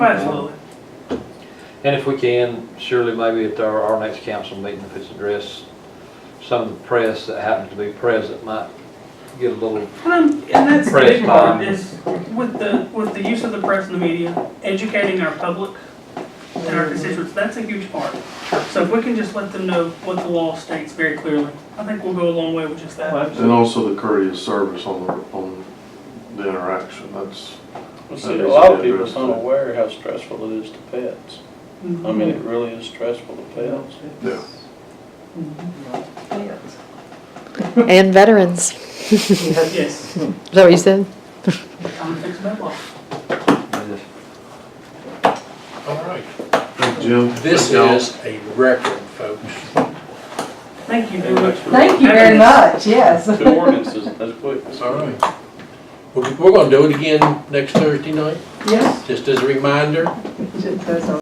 Absolutely. And if we can, surely maybe at our, our next council meeting, if it's addressed, some of the press that happens to be present might get a little, And, I'm- and that's the big Press part bond. is with the, with the use of the press and the media, educating our public and our constituents, that's a huge part. So if we can just let them know what the law states very clearly, I think we'll go a long way with just that. And also the courteous service on the, on the interaction, that's, Well, See, a lot of people's unaware how stressful it is to pets. Mm-hmm. I mean, it really is stressful to pets. yeah. And veterans. Is Yes, that what you said? I'm gonna fix that law. All right. Jim? This is a record, folks. Thank you very much. for Thank you very having us. much, yes. Two ordinances, that's quick. All right. We're, we're gonna do it again next Thursday night, Yes, just as a reminder. it does.